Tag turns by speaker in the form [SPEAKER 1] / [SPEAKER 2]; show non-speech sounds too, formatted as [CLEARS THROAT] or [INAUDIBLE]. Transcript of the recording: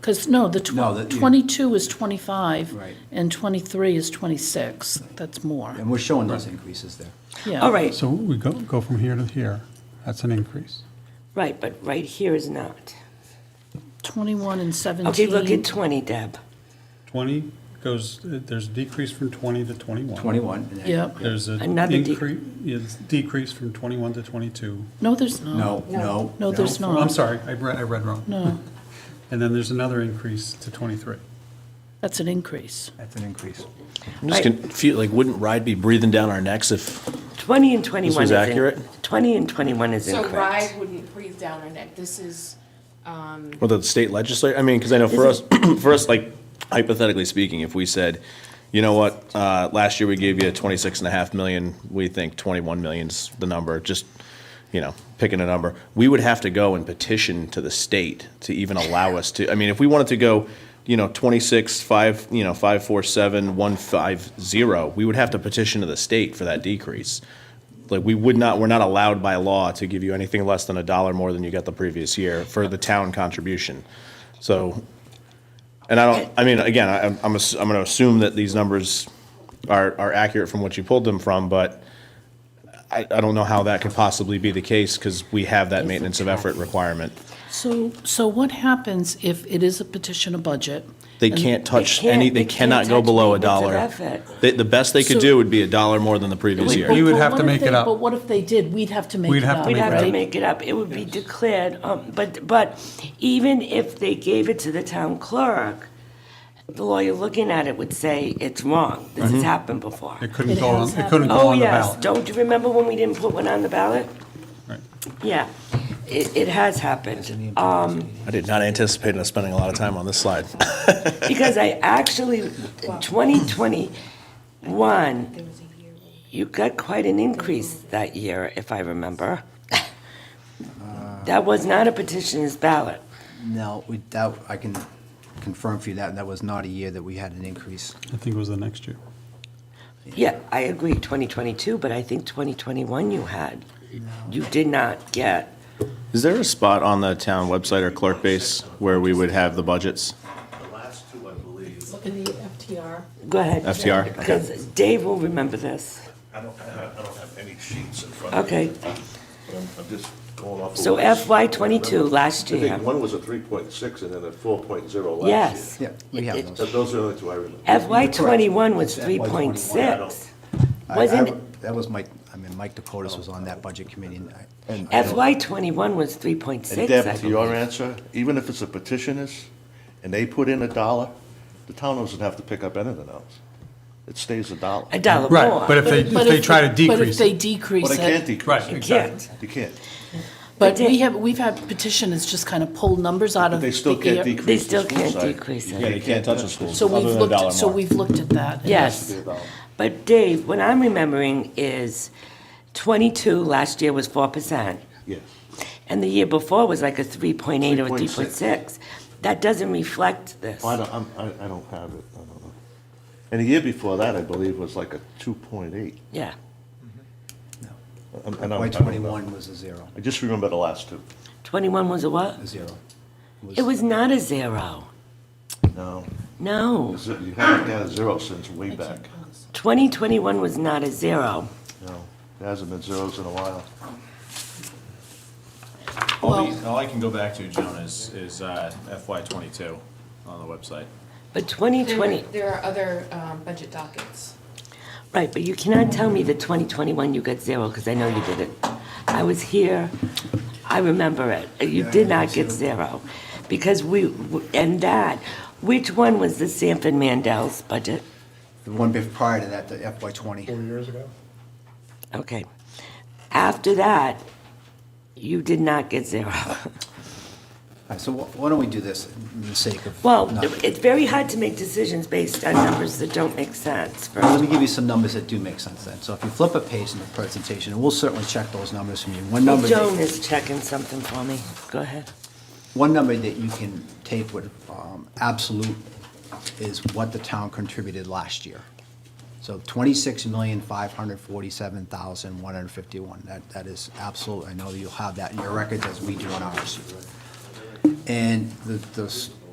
[SPEAKER 1] Because, no, the
[SPEAKER 2] No, that
[SPEAKER 1] tw-
[SPEAKER 2] you-
[SPEAKER 1] 22 is 25.
[SPEAKER 2] Right.
[SPEAKER 1] And 23 is 26. That's more,
[SPEAKER 2] And we're showing those increases there.
[SPEAKER 1] yeah.
[SPEAKER 3] All right,
[SPEAKER 4] So we go, go from here to here. That's an increase.
[SPEAKER 3] right, but right here is not.
[SPEAKER 1] 21 and 17.
[SPEAKER 3] Okay, look at 20, Deb.
[SPEAKER 4] 20 goes, there's a decrease from 20 to 21.
[SPEAKER 2] 21. and then-
[SPEAKER 1] Yep.
[SPEAKER 4] There's a
[SPEAKER 3] Another de-
[SPEAKER 4] increase, it's decrease from 21 to 22.
[SPEAKER 1] No, there's not.
[SPEAKER 2] No, no.
[SPEAKER 1] No, there's not.
[SPEAKER 4] I'm sorry, I read, I read wrong.
[SPEAKER 1] No,
[SPEAKER 4] And then there's another increase to 23.
[SPEAKER 1] that's an increase.
[SPEAKER 2] That's an increase.
[SPEAKER 5] I'm just
[SPEAKER 3] Right.
[SPEAKER 5] confused, like, wouldn't Ride be breathing down our necks if
[SPEAKER 3] 20 and 21 is.
[SPEAKER 5] was
[SPEAKER 3] in-
[SPEAKER 5] accurate?
[SPEAKER 3] 20 and 21 is
[SPEAKER 6] So
[SPEAKER 3] incorrect.
[SPEAKER 6] RIDE wouldn't breathe down our neck. This is,
[SPEAKER 5] Well, the state legislature, I mean, because I know for us, [CLEARS THROAT] for us, like hypothetically speaking, if we said, you know what, uh, last year we gave you twenty-six and a half million, we think twenty-one million's the number, just, you know, picking a number, we would have to go and petition to the state to even allow us to, I mean, if we wanted to go, you know, twenty-six, five, you know, five, four, seven, one, five, zero, we would have to petition to the state for that decrease. Like, we would not, we're not allowed by law to give you anything less than a dollar more than you got the previous year for the town contribution. So, and I don't, I mean, again, I- I'm, I'm ass- I'm gonna assume that these numbers are, are accurate from what you pulled them from, but I, I don't know how that could possibly be the case, because we have that maintenance of effort requirement.
[SPEAKER 1] So, so what happens if it is a petition of budget?
[SPEAKER 5] They
[SPEAKER 1] and-
[SPEAKER 5] can't touch
[SPEAKER 3] can't-
[SPEAKER 5] any, they
[SPEAKER 3] they can't
[SPEAKER 5] cannot go
[SPEAKER 3] touch
[SPEAKER 5] below a
[SPEAKER 3] maintenance of
[SPEAKER 5] dollar.
[SPEAKER 3] effort.
[SPEAKER 5] The, the best they could
[SPEAKER 1] So-
[SPEAKER 5] do would be a dollar more than the previous
[SPEAKER 1] But-
[SPEAKER 4] We
[SPEAKER 5] year.
[SPEAKER 4] would
[SPEAKER 1] but
[SPEAKER 4] have
[SPEAKER 1] what
[SPEAKER 4] to
[SPEAKER 1] if
[SPEAKER 4] make
[SPEAKER 1] they-
[SPEAKER 4] it up.
[SPEAKER 1] But what if they did? We'd have to make
[SPEAKER 4] We'd
[SPEAKER 1] it
[SPEAKER 4] have to
[SPEAKER 1] up.
[SPEAKER 3] We'd
[SPEAKER 4] make it
[SPEAKER 3] have to
[SPEAKER 4] up.
[SPEAKER 3] make it up. It would be declared, um, but, but even if they gave it to the town clerk, the lawyer looking at it would say, it's wrong. This has happened before.
[SPEAKER 4] Mm-hmm. It couldn't
[SPEAKER 1] It
[SPEAKER 4] go on,
[SPEAKER 1] has
[SPEAKER 4] it couldn't go
[SPEAKER 3] Oh,
[SPEAKER 4] on the
[SPEAKER 3] yes.
[SPEAKER 4] ballot.
[SPEAKER 3] Don't you remember when we didn't put one on the ballot?
[SPEAKER 4] Right.
[SPEAKER 3] Yeah, it, it has happened. Um,
[SPEAKER 5] I did not anticipate us spending a lot of time on this slide.
[SPEAKER 3] Because I actually, in 2021, you got quite an increase that year, if I remember. That was not a petitioner's ballot.
[SPEAKER 2] No, we, that, I can confirm for you that, that was not a year that we had an increase.
[SPEAKER 4] I think it was the next year.
[SPEAKER 3] Yeah, I agree, 2022, but I think 2021 you had. You did not get,
[SPEAKER 5] Is there a spot on the town website or clerk base where we would have the budgets?
[SPEAKER 7] The last two, I believe,
[SPEAKER 6] look at the FTR.
[SPEAKER 3] go ahead.
[SPEAKER 5] FTR, okay.
[SPEAKER 3] Because Dave will remember this.
[SPEAKER 7] I don't, I don't have any sheets in front of me.
[SPEAKER 3] Okay,
[SPEAKER 7] but I'm I'm just going off. of
[SPEAKER 3] So
[SPEAKER 7] what I-
[SPEAKER 3] FY 22 last
[SPEAKER 7] I
[SPEAKER 3] year.
[SPEAKER 7] think one was a 3.6 and then a 4.0 last year.
[SPEAKER 3] yes.
[SPEAKER 2] Yeah, we have
[SPEAKER 3] It-
[SPEAKER 2] those.
[SPEAKER 7] Th- Those are the only two I remember.
[SPEAKER 3] FY
[SPEAKER 2] correct.
[SPEAKER 3] '21 was
[SPEAKER 2] It's FY 21.
[SPEAKER 3] 3.6.
[SPEAKER 2] I- I-
[SPEAKER 3] Wasn't,
[SPEAKER 2] That was Mike, I mean, Mike Dakotas was on that budget committee. and I- and I don't-
[SPEAKER 3] FY '21 was 3.6.
[SPEAKER 7] And
[SPEAKER 3] I
[SPEAKER 7] Deb, to your
[SPEAKER 3] believe.
[SPEAKER 7] answer, even if it's a petitioner's and they put in a dollar, the town doesn't have to pick up anything else. It stays a dollar.
[SPEAKER 3] A dollar
[SPEAKER 4] Right,
[SPEAKER 3] more.
[SPEAKER 4] but if they,
[SPEAKER 1] But
[SPEAKER 4] if they try to
[SPEAKER 1] But if
[SPEAKER 4] decrease
[SPEAKER 1] they
[SPEAKER 4] it.
[SPEAKER 1] decrease
[SPEAKER 7] Well, they can't
[SPEAKER 1] it,
[SPEAKER 7] decrease
[SPEAKER 4] Right,
[SPEAKER 7] it.
[SPEAKER 3] uh, You
[SPEAKER 4] exactly.
[SPEAKER 3] can't.
[SPEAKER 7] You can't.
[SPEAKER 1] but
[SPEAKER 3] they-
[SPEAKER 1] we have, we've had petitioners just kind of pull numbers out
[SPEAKER 7] But
[SPEAKER 1] of the
[SPEAKER 7] they still can't
[SPEAKER 1] air.
[SPEAKER 7] decrease.
[SPEAKER 3] They
[SPEAKER 7] the
[SPEAKER 3] still
[SPEAKER 7] school
[SPEAKER 3] can't
[SPEAKER 7] side.
[SPEAKER 3] decrease it.
[SPEAKER 5] Yeah, you can't touch the schools,
[SPEAKER 1] So
[SPEAKER 5] other
[SPEAKER 1] we've
[SPEAKER 5] than a
[SPEAKER 1] looked,
[SPEAKER 5] dollar
[SPEAKER 1] at- so
[SPEAKER 5] more.
[SPEAKER 1] we've looked at that.
[SPEAKER 3] Yes. But Dave, what I'm remembering is 22 last year was 4%,
[SPEAKER 7] Yes.
[SPEAKER 3] and the year before was like a 3.8 or a
[SPEAKER 7] 3.6.
[SPEAKER 3] 3.6. That doesn't reflect this.
[SPEAKER 7] I don't, I'm- I, I don't have it. I don't know. And the year before that, I believe, was like a 2.8.
[SPEAKER 3] Yeah.
[SPEAKER 7] And- and I'm- I
[SPEAKER 2] FY
[SPEAKER 7] don't know.
[SPEAKER 2] twenty-one was a zero,
[SPEAKER 7] I just remember the last two.
[SPEAKER 3] 21 was a what?
[SPEAKER 2] a zero.
[SPEAKER 3] It was not a zero.
[SPEAKER 7] No.
[SPEAKER 3] No.
[SPEAKER 7] Is it- You haven't had a zero since way back.
[SPEAKER 3] 2021 was not a zero.
[SPEAKER 7] No, there hasn't been zeros in a while.
[SPEAKER 5] All, the- all I can go back to, Joan, is, is uh, FY twenty-two on the website.
[SPEAKER 3] But
[SPEAKER 6] There
[SPEAKER 3] 2020,
[SPEAKER 6] there are other um, budget dockets.
[SPEAKER 3] right, but you cannot tell me that 2021 you got zero, because I know you didn't. I was here, I remember it. You did not get zero. Because we, and that, which one was the Sanford Mandel's budget?
[SPEAKER 2] The one bef- prior to that, the FY twenty.
[SPEAKER 3] Okay. After that, you did not get zero. [LAUGHS]
[SPEAKER 2] All right, So wh- why don't we do this in the sake of?
[SPEAKER 3] Well,
[SPEAKER 2] not-
[SPEAKER 3] it's very hard to make decisions based on numbers that don't make sense. for-
[SPEAKER 2] Well, Let me give you some numbers that do make sense then. So if you flip a page in the presentation, and we'll certainly check those numbers from you. One number,
[SPEAKER 3] Joan
[SPEAKER 2] that-
[SPEAKER 3] is checking something for me. Go ahead.
[SPEAKER 2] one number that you can take with um, absolute is what the town contributed last year. So twenty-six million, five hundred forty-seven thousand, one hundred fifty-one. That, that is absolute. I know that you'll have that in your records as we do in ours. And the, the s-